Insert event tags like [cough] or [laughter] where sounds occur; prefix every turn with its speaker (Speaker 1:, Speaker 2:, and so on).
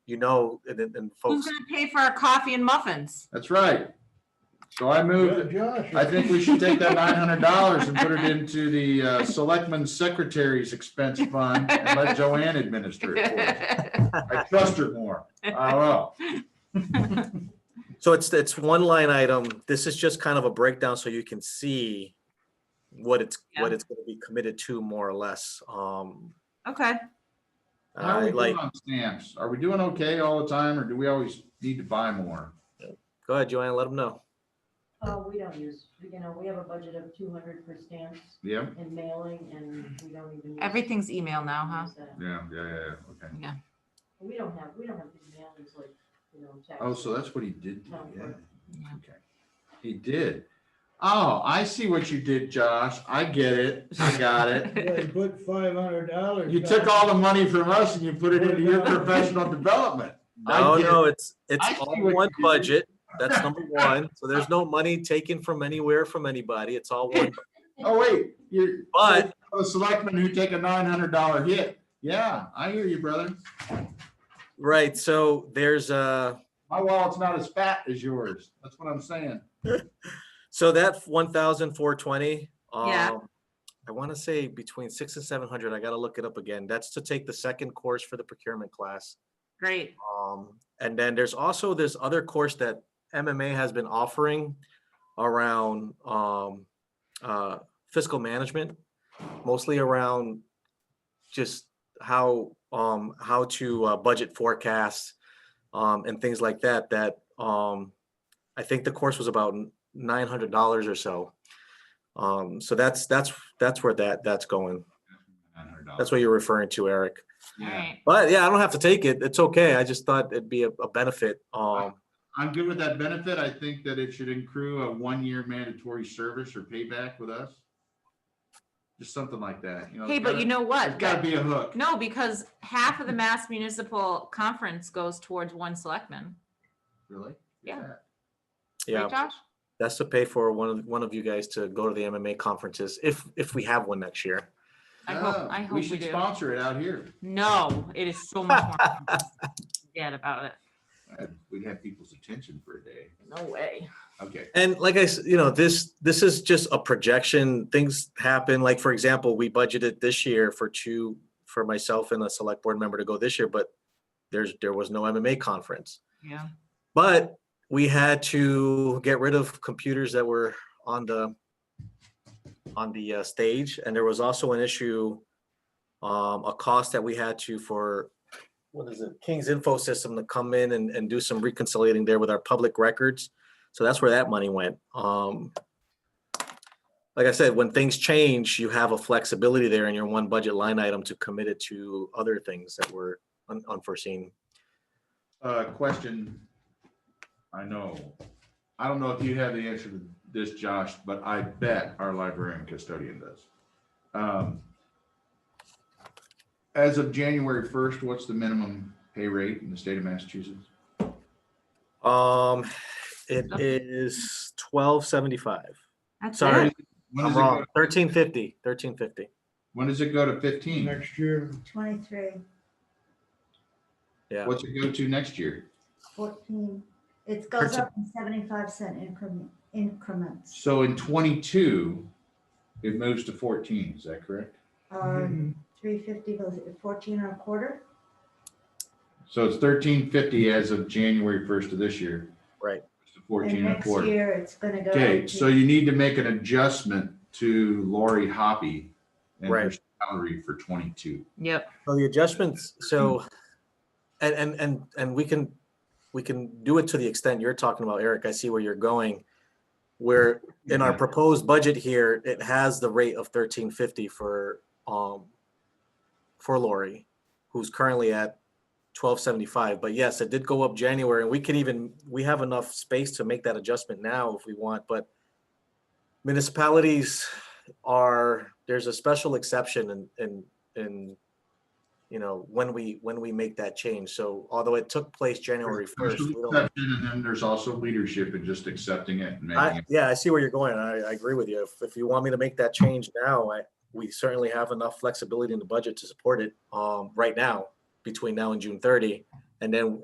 Speaker 1: you know, and, and and folks,
Speaker 2: Who's gonna pay for our coffee and muffins?
Speaker 3: That's right. So I move,
Speaker 4: Josh.
Speaker 3: I think we should take that nine hundred dollars and put it into the uh, Selectman Secretary's Expense Fund and let Joanne administer it for us. I trust her more. I will.
Speaker 1: so it's, it's one line item. This is just kind of a breakdown so you can see what it's, what
Speaker 2: Yeah.
Speaker 1: it's gonna be committed to more or less. Um,
Speaker 2: [laughs]
Speaker 3: [laughs]
Speaker 2: Okay,
Speaker 3: How are
Speaker 1: I
Speaker 3: we
Speaker 1: like,
Speaker 3: doing on stamps? Are we doing okay all the time or do we always need to buy more?
Speaker 1: go ahead, Joanne, let them know.
Speaker 5: Oh, we don't use, you know, we have a budget of two hundred for stamps
Speaker 3: Yeah,
Speaker 5: and mailing and we don't even. use-
Speaker 2: everything's email now, huh?
Speaker 5: use that.
Speaker 3: yeah, yeah, yeah, yeah, okay.
Speaker 5: We don't have, we don't have big mailings like, you know, tax.
Speaker 3: Oh, so that's what he did, do, yeah.
Speaker 2: Yeah.
Speaker 3: Okay. He did. Oh, I see what you did, Josh. I get it. I got it.
Speaker 4: They put five hundred dollars.
Speaker 3: You took all the money from us and you put it into your professional development. I
Speaker 1: No,
Speaker 3: get
Speaker 1: Oh, no,
Speaker 3: it.
Speaker 1: it's, it's
Speaker 3: I see
Speaker 1: all
Speaker 3: what you
Speaker 1: one
Speaker 3: did.
Speaker 1: budget.
Speaker 3: [laughs]
Speaker 1: That's number one. So there's no money taken from anywhere from anybody. It's
Speaker 3: [laughs]
Speaker 1: all one.
Speaker 3: Oh, wait, you're.
Speaker 1: But-
Speaker 3: A selectman who take a nine hundred dollar hit. Yeah, I hear you, brother.
Speaker 1: Right, so there's a,
Speaker 3: My wallet's not as fat as yours. That's what I'm saying.
Speaker 1: so that one thousand four twenty. um,
Speaker 2: Yeah.
Speaker 1: I want to say between six and seven hundred. I gotta look it up again. That's to take the second course for the procurement class.
Speaker 2: Great.
Speaker 1: Um, and then there's also this other course that MMA has been offering around um, uh, fiscal management, mostly around just how um, how to uh, budget forecasts um, and things like that. That um, I think the course was about nine hundred dollars or so. Um, so that's that's that's where that that's going. That's what you're referring to, Eric.
Speaker 3: Yeah,
Speaker 1: But yeah, I don't have to take it. It's okay. I just thought it'd be a, a benefit. Um,
Speaker 3: I'm good with that benefit. I think that it should accrue a one-year mandatory service or payback with us. Just something like that, you know.
Speaker 2: Hey, but you know
Speaker 3: It's
Speaker 2: what?
Speaker 3: gotta be a hook.
Speaker 2: No, because half of the Mass Municipal Conference goes towards one selectman.
Speaker 3: Really?
Speaker 2: Yeah.
Speaker 1: yeah,
Speaker 2: Right, Josh?
Speaker 1: that's to pay for one of one of you guys to go to the MMA conferences if if we have one next year.
Speaker 2: I hope-
Speaker 3: Yeah,
Speaker 2: I hope
Speaker 3: Oh, We
Speaker 2: we
Speaker 3: should
Speaker 2: do.
Speaker 3: sponsor it out here.
Speaker 2: No, it is so much
Speaker 3: [laughs]
Speaker 2: more. Forget about it.
Speaker 3: Uh, We'd have people's attention for a day.
Speaker 2: No way.
Speaker 3: Okay.
Speaker 1: And like I, s- you know, this this is just a projection. Things happen. Like for example, we budgeted this year for two for myself and a select board member to go this year, but there's there was no MMA conference.
Speaker 2: Yeah.
Speaker 1: But we had to get rid of computers that were on the on the uh, stage, and there was also an issue, um, a cost that we had to for what is it, King's Info System to come in and, and do some reconciliating there with our public records. So that's where that money went. Um, like I said, when things change, you have a flexibility there in your one budget line item to commit it to other things that were un- unforeseen.
Speaker 3: Uh, question. I know. I don't know if you have the answer to this, Josh, but I bet our librarian custodian does. Um, As of January first, what's the minimum pay rate in the state of Massachusetts?
Speaker 1: Um, it
Speaker 2: Up.
Speaker 1: is twelve seventy-five.
Speaker 2: That's
Speaker 1: Sorry.
Speaker 2: it.
Speaker 3: When
Speaker 1: I'm
Speaker 3: does it go-
Speaker 1: wrong. Thirteen fifty, thirteen fifty.
Speaker 3: When does it go to fifteen?
Speaker 4: Next year,
Speaker 6: Twenty-three,
Speaker 1: Yeah.
Speaker 3: What's it go to next year?
Speaker 6: fourteen, it goes
Speaker 1: Thirteen.
Speaker 6: up in seventy-five cent increment, increments.
Speaker 3: So in twenty-two, it moves to fourteen, is that correct? Mm-hmm.
Speaker 6: Three fifty goes at fourteen and a quarter,
Speaker 3: So it's thirteen fifty as of January first of this year.
Speaker 1: Right.
Speaker 3: It's to
Speaker 6: and
Speaker 3: Fourteen and a
Speaker 6: next
Speaker 3: quarter.
Speaker 6: year it's gonna go.
Speaker 3: Okay,
Speaker 6: up
Speaker 3: so
Speaker 6: to-
Speaker 3: you need to make an adjustment to Lori Hoppy and her
Speaker 1: Right.
Speaker 3: salary for twenty-two.
Speaker 2: Yep.
Speaker 1: So the adjustments,
Speaker 3: Hmm.
Speaker 1: so, and, and, and, and we can, we can do it to the extent you're talking about, Eric. I see where you're going. Where in our
Speaker 3: Yeah.
Speaker 1: proposed budget here, it has the rate of thirteen fifty for, um, for Lori, who's currently at twelve seventy-five. But yes, it did go up January and we could even, we have enough space to make that adjustment now if we want, but municipalities are, there's a special exception in, in, in you know, when we, when we make that change. So although it took place January
Speaker 3: There's
Speaker 1: first,
Speaker 3: an
Speaker 1: we don't,
Speaker 3: exception, And then there's also leadership and just accepting it and making
Speaker 1: I,
Speaker 3: it.
Speaker 1: yeah, I see where you're going. I, I agree with you. If, if you want me to make that change now, I, we certainly have enough flexibility in the budget to support it, um, right now, between now and June thirty. And then